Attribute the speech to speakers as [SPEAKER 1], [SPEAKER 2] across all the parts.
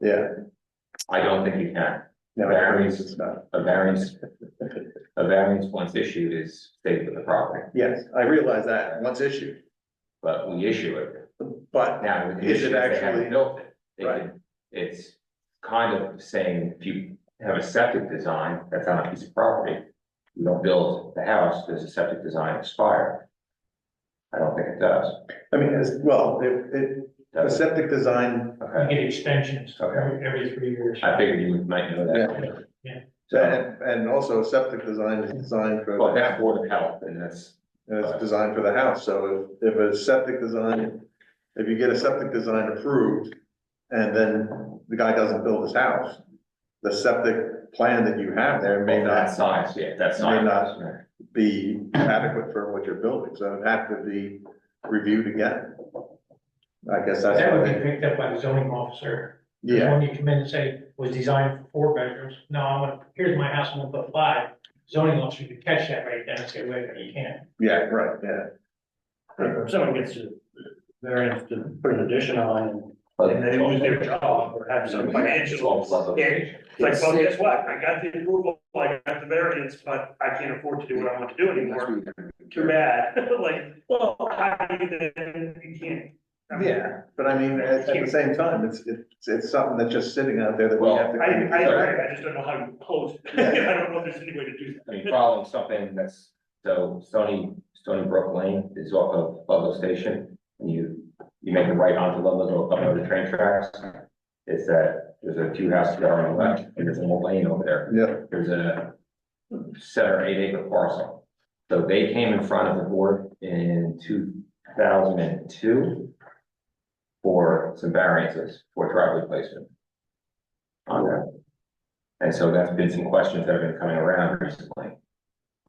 [SPEAKER 1] yeah,
[SPEAKER 2] I don't think you can.
[SPEAKER 1] no, variance is not,
[SPEAKER 2] A variance, a variance once issued is stayed with the property,
[SPEAKER 1] yes, I realize that, once issued,
[SPEAKER 2] but we issue it.
[SPEAKER 1] but
[SPEAKER 2] Now, the
[SPEAKER 1] Is it
[SPEAKER 2] issue is they haven't
[SPEAKER 1] actually-
[SPEAKER 2] built it. They
[SPEAKER 1] Right.
[SPEAKER 2] can- It's kind of saying if you have a septic design that's on a piece of property, you don't build the house, does the septic design expire? I don't think it does.
[SPEAKER 1] I mean, as, well, it, it, the
[SPEAKER 2] Does it?
[SPEAKER 1] septic design,
[SPEAKER 3] You
[SPEAKER 2] Okay,
[SPEAKER 3] get extensions
[SPEAKER 2] Okay.
[SPEAKER 3] every, every three years.
[SPEAKER 2] I figured you might know that.
[SPEAKER 3] Yeah.
[SPEAKER 2] So,
[SPEAKER 1] and, and also septic design is designed for.
[SPEAKER 2] well, that's Board of Health and that's
[SPEAKER 1] And it's designed for the house, so if, if a septic design, if you get a septic design approved, and then the guy doesn't build his house, the septic plan that you have there may
[SPEAKER 2] Well, that
[SPEAKER 1] not
[SPEAKER 2] size, yeah, that
[SPEAKER 1] May
[SPEAKER 2] size.
[SPEAKER 1] not. be adequate for what you're building, so it'd have to be reviewed again. I guess that's,
[SPEAKER 3] That
[SPEAKER 1] what
[SPEAKER 3] would be
[SPEAKER 1] I-
[SPEAKER 3] picked up by the zoning officer.
[SPEAKER 1] yeah,
[SPEAKER 3] When you come in and say, was designed for four bedrooms, no, I'm gonna, here's my house, I'm gonna put five. Zoning officer could catch that right then and say, wait, a minute, you can't.
[SPEAKER 1] yeah, right, yeah,
[SPEAKER 4] If someone gets a variance to put an addition on
[SPEAKER 2] But-
[SPEAKER 4] and then lose their job or have some financial.
[SPEAKER 2] Twelve plus.
[SPEAKER 4] Yeah, it's like, well, guess what? I got the approval, I got the variance, but I can't afford to do what I want to do anymore. Too bad. Like, well, I, then you can't. I mean,
[SPEAKER 1] yeah, but I mean, at, at the same time, it's, it's, it's something that's just sitting out there that we
[SPEAKER 2] Well,
[SPEAKER 1] have to.
[SPEAKER 4] I, I agree. I just don't know how you close. it. I don't know if there's any way to do that.
[SPEAKER 2] I mean, following something that's, so Stony, Stony Brook Lane is off of Ludlow Station. And you, you make a right onto Ludlow, go up over the train tracks. It's that, there's a few houses that are on the left, and there's an old lane over there.
[SPEAKER 1] Yeah,
[SPEAKER 2] There's a seven or eight acre parcel. So they came in front of the board in two thousand and two for some variances for driveway placement. On that. And so that's been some questions that have been coming around recently.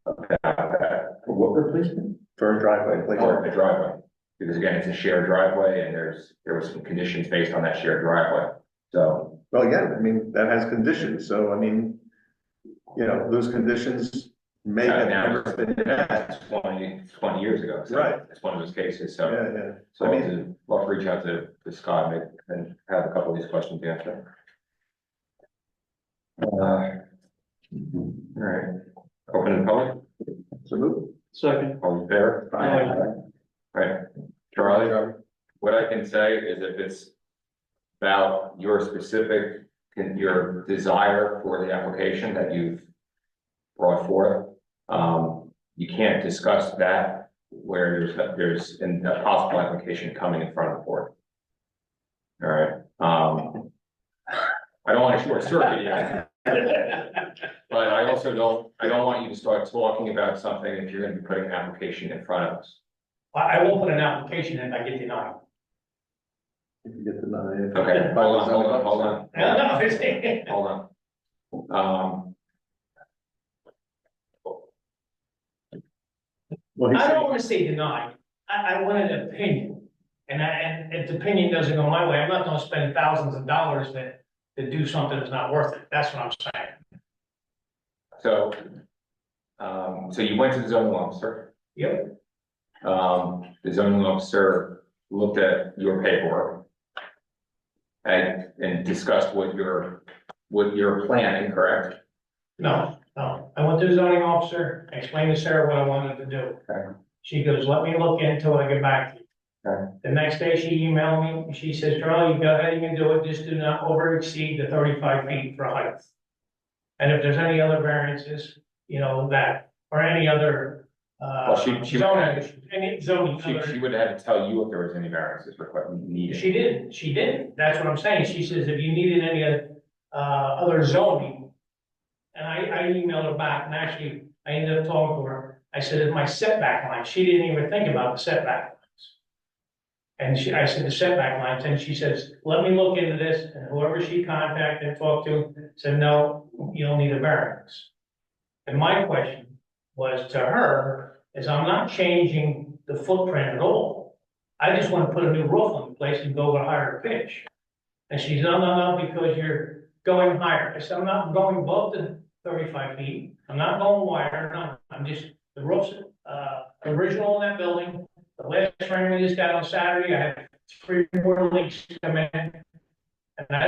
[SPEAKER 2] About that. For What replacement?
[SPEAKER 1] for a driveway,
[SPEAKER 2] For a
[SPEAKER 1] please,
[SPEAKER 2] driveway. Because again, it's a shared driveway and there's, there was some conditions based on that shared driveway. So,
[SPEAKER 1] well, again, I mean, that has conditions, so I mean, you know, those conditions may have never been met.
[SPEAKER 2] that's 20 20 years ago. So
[SPEAKER 1] Right.
[SPEAKER 2] It's one of those cases,
[SPEAKER 1] Yeah,
[SPEAKER 2] so.
[SPEAKER 1] yeah,
[SPEAKER 2] So
[SPEAKER 1] I
[SPEAKER 2] I
[SPEAKER 1] mean-
[SPEAKER 2] need to, well, reach out to, to Scott and, and have a couple of these questions answered. Uh, All right, open the public,
[SPEAKER 1] so move.
[SPEAKER 4] Second.
[SPEAKER 2] all in favor?
[SPEAKER 4] Aye.
[SPEAKER 2] Right, Charlie, what I can say is if it's about your specific, can- your desire for the application that you've brought forth, um, you can't discuss that where there's, there's an- a possible application coming in front of the board. All right, um, I don't want to short circuit you, but I also don't, I don't want you to start talking about something if you're gonna be putting an application in front of us.
[SPEAKER 3] I, I will put an application in if I get denied.
[SPEAKER 1] If you get denied.
[SPEAKER 2] Okay, hold on, hold on, hold on.
[SPEAKER 3] No, no, it's-
[SPEAKER 2] Hold on. Um,
[SPEAKER 1] Well, he's
[SPEAKER 3] I don't
[SPEAKER 1] saying,
[SPEAKER 3] wanna say denied, I, I want an opinion. And I, and if the opinion doesn't go my way, I'm not gonna spend thousands of dollars to, to do something that's not worth it, that's what I'm saying.
[SPEAKER 2] Um, so. Um, so you went to the zoning officer.
[SPEAKER 3] Yep.
[SPEAKER 2] Um, the zoning officer looked at your paperwork. And, and discussed what your, what you're planning, correct?
[SPEAKER 3] No, no, I went to the zoning officer, I explained to Sarah what I wanted to do.
[SPEAKER 2] Okay.
[SPEAKER 3] She goes, let me look into it, I get back to you.
[SPEAKER 2] Okay.
[SPEAKER 3] The next day, she emailed me, and she says, Charlie, you go ahead, you can do it, just do not over exceed the thirty-five feet for height. And if there's any other variances, you know, that, or any other, uh,
[SPEAKER 2] Well, she- she-
[SPEAKER 3] zoning, any zoning.
[SPEAKER 2] She, she would have had to tell you if there was any variances required, needed.
[SPEAKER 3] She did, she did, that's what I'm saying, she says if you needed any, uh, other zoning. And I, I emailed her back, and actually, I ended up talking to her, I said, "Is my setback line, she didn't even think about the setback lines. And she, I said the setback lines, and she says, let me look into this, and whoever she contacted and talked to said, no, you don't need a variance. And my question was to her, is I'm not changing the footprint at all. I just want to put a new roof on the place and go with a higher pitch. And she's, no, no, no, because you're going higher. I said, I'm not going above the thirty-five feet. I'm not going wider, no, I'm just, the roof's, uh, original in that building. The last rain we just got on Saturday, I had three more leaks come in. And I